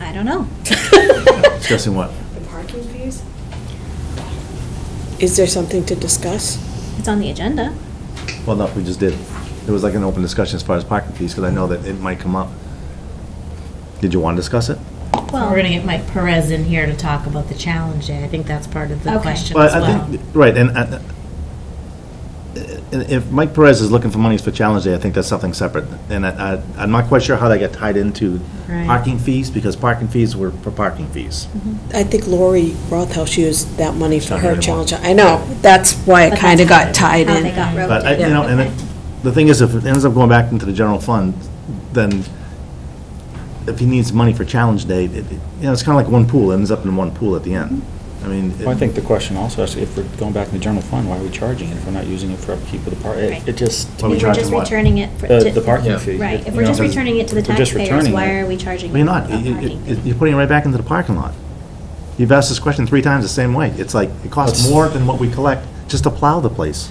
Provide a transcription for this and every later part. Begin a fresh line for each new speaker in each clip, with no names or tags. I don't know.
Discussing what?
The parking fees?
Is there something to discuss?
It's on the agenda.
Well, no, we just did. It was like an open discussion as far as parking fees, because I know that it might come up. Did you want to discuss it?
Well,
We're going to get Mike Perez in here to talk about the challenge day. I think that's part of the
Okay.
question
Well,
as
I
well.
think Right, and, uh, and if Mike Perez is looking for monies for Challenge Day, I think that's something separate. And I, I- I'm not quite sure how that got tied into
Right.
parking fees, because parking fees were for parking fees.
I think Lori Rothaus used that money for
Not
her
anymore.
challenge. I know, that's why it
But
kind of
that's
got tied
how they
in.
got
But, I-
roped
you
in.
know, and it- the thing is, if it ends up going back into the general fund, then if he needs money for Challenge Day, it- it- you know, it's kind of like one pool, ends up in one pool at the end. I mean. it-
Well, I think the question also is, if we're going back to the general fund, why are we charging it if we're not using it for upkeep of the park? It
Right.
it just,
Why
We
we
were
charging
just
what?
returning it. for-
The-
to-
the parking
Yeah.
fee,
Right, if
you
we're
know,
just
because
returning it to the
if we're just
taxpayers,
returning
why
it-
are we charging?
Well, you're not.
a
You- you-
parking
you-
fee?
You're putting it right back into the parking lot. You've asked this question three times the same way. It's like, it costs
That's-
more than what we collect just to plow the place.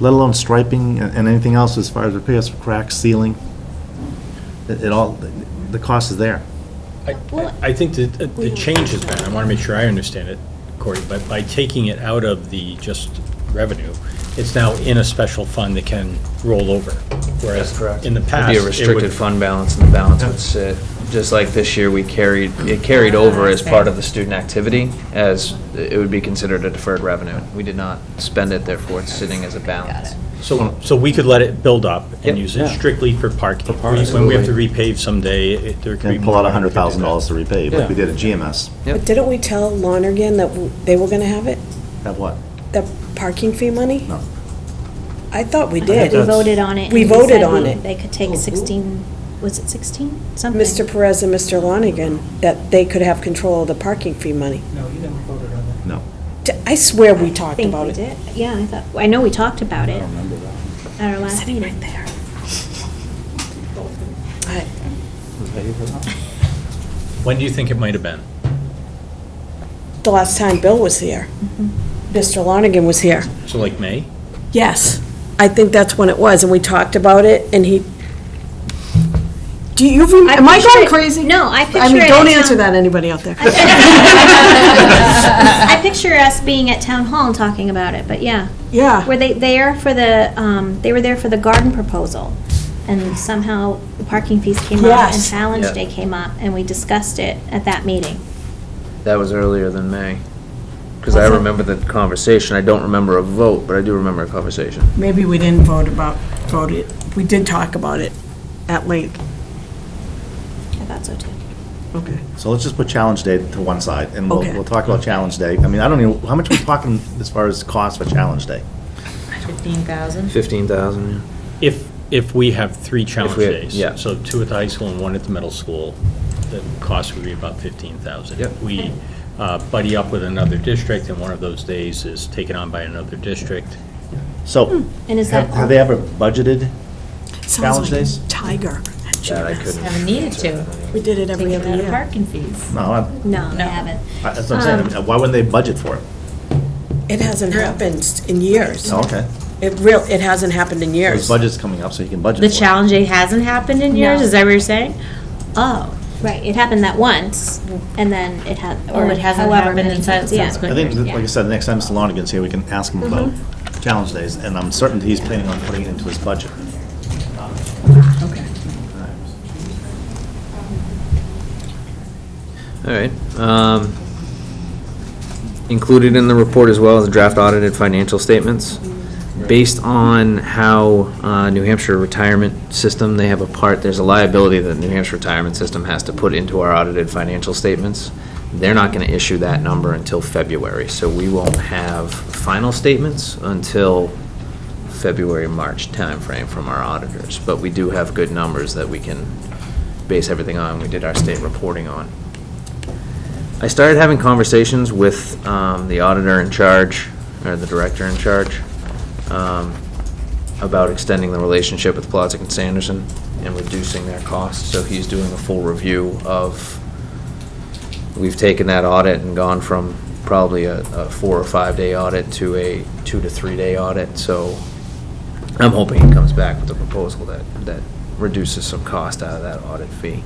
Let alone striping and and anything else as far as repairs, cracks, sealing. It it all, the cost is there.
I- I I think that uh, the change has been, I want to make sure I understand it, Corey, but by taking it out of the just revenue, it's now in a special fund that can roll over. Whereas
That's correct.
in the past.
It'd be
it
a
would-
restricted fund balance, and the balance would sit, just like this year, we carried, it carried over as part of the student activity, as it would be considered a deferred revenue. We did not spend it, therefore it's sitting as a balance.
So, so we could let it build up and
Yep.
use it
Yeah.
strictly for parking.
For parking.
When we have to repave someday, it- there could be.
And pull out
more
a hundred thousand dollars to
money
repay, like we
Yeah.
did at GMS.
Yep.
But didn't we tell Lonergan that w- they were going to have it,
Have what?
the parking fee money?
No.
I thought we
But
did.
We voted on it.
We
and we
voted
said
on
we-
it.
They could take 16, was it 16? Something.
Mr. Perez and Mr. Lonergan, that they could have control of the parking fee money.
No, you never voted on that.
No.
D- I swear we
I
talked
think
about
we
it.
did. Yeah, I thought, I know we talked about
I
it
don't remember that.
at our last meeting.
I-
Was I here for that?
to do that. When do you think it might have been?
The last time Bill was here,
Mm-hmm.
Mr. Lonergan was here.
So like May?
Yes, I think that's when it was, and we talked about it, and he, do you, rem- am I
picture
going
it-
crazy?
No, I picture
I mean,
it Um,
don't
at
answer
town-
that, anybody out there.
I picture us being at town hall and talking about it, but yeah. Were
Yeah,
they there for the, um, they were there for the garden proposal, and somehow the parking fees came up and
Yes.
Challenge
Yeah.
Day came up, and we discussed it at that meeting.
That was earlier than May, because I
Was it?
remember the conversation. I don't remember a vote, but I do remember a conversation.
maybe we didn't vote about, vote it, we did talk about it at length.
I thought so too.
Okay.
So let's just put Challenge Day to one side, and we'll,
Okay.
we'll talk about Challenge Day. I mean, I don't even, how much are we talking as far as cost for Challenge Day?
15,000?
Fifteen thousand, yeah.
If, if we have three challenge
we-
days.
yeah.
So two at the high school and one at the middle school, the cost would be about fifteen thousand.
Yep.
If we uh, buddy up with another district and one of those days is taken on by another district,
So,
And is
have
that?
have they ever budgeted Challenge days?
Tiger.
That I couldn't.
Haven't needed to.
We did it every
Taking
other
out of
year.
parking fees.
No, I-
No, they
No.
haven't.
I- that's what I'm saying. I mean, Why wouldn't they budget for it?
It hasn't happened in years.
Oh, okay.
It real, it hasn't happened in
Well,
years.
His budget's coming up, so he can budget for
The
it.
challenge day hasn't happened in years,
No.
is that what you're saying? Oh,
Right, it happened that once, and then it had, or
Oh, it hasn't
however
happened
many
in
times, yeah.
subsequent-
I think, that, like I
Yeah.
said, the next time Mr. Lonergan's here, we can ask him about challenge days, and I'm certain he's planning on putting it into his budget.
All right. um, Included in the report as well as draft audited financial statements. Based on how uh, New Hampshire retirement system, they have a part, there's a liability that New Hampshire retirement system has to put into our audited financial statements. They're not going to issue that number until February, so we won't have final statements until February, March timeframe from our auditors. But we do have good numbers that we can base everything on, we did our state reporting on. I started having conversations with um, the auditor in charge, or the director in charge, um, about extending the relationship with Plotzik and Sanderson and reducing their costs. So he's doing a full review of, we've taken that audit and gone from probably a a four or five-day audit to a two to three-day audit. So I'm hoping he comes back with a proposal that, that reduces some cost out of that audit fee.